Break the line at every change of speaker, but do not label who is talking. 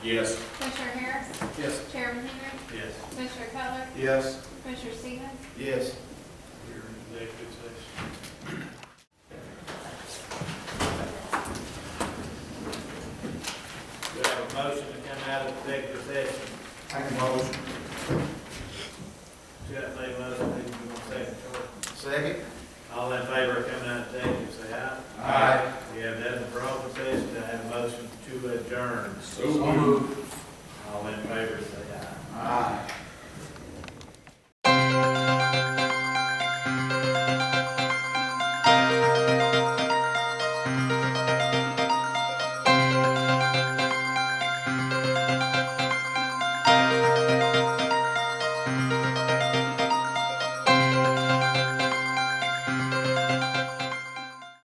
Yes.
Commissioner Harris?
Yes.
Chairman Henry?
Yes.
Commissioner Cutler?
Yes.
Commissioner Stevens?
Yes. We're in executive session. Do I have a motion to come out of executive session?
Make a motion.
Should I say motion, maybe we gonna say it short?
Second?
All in favor of coming out of executive, say aye.
Aye.
We have that in the problem session, Do I have a motion to adjourn.
So moved.
All in favor, say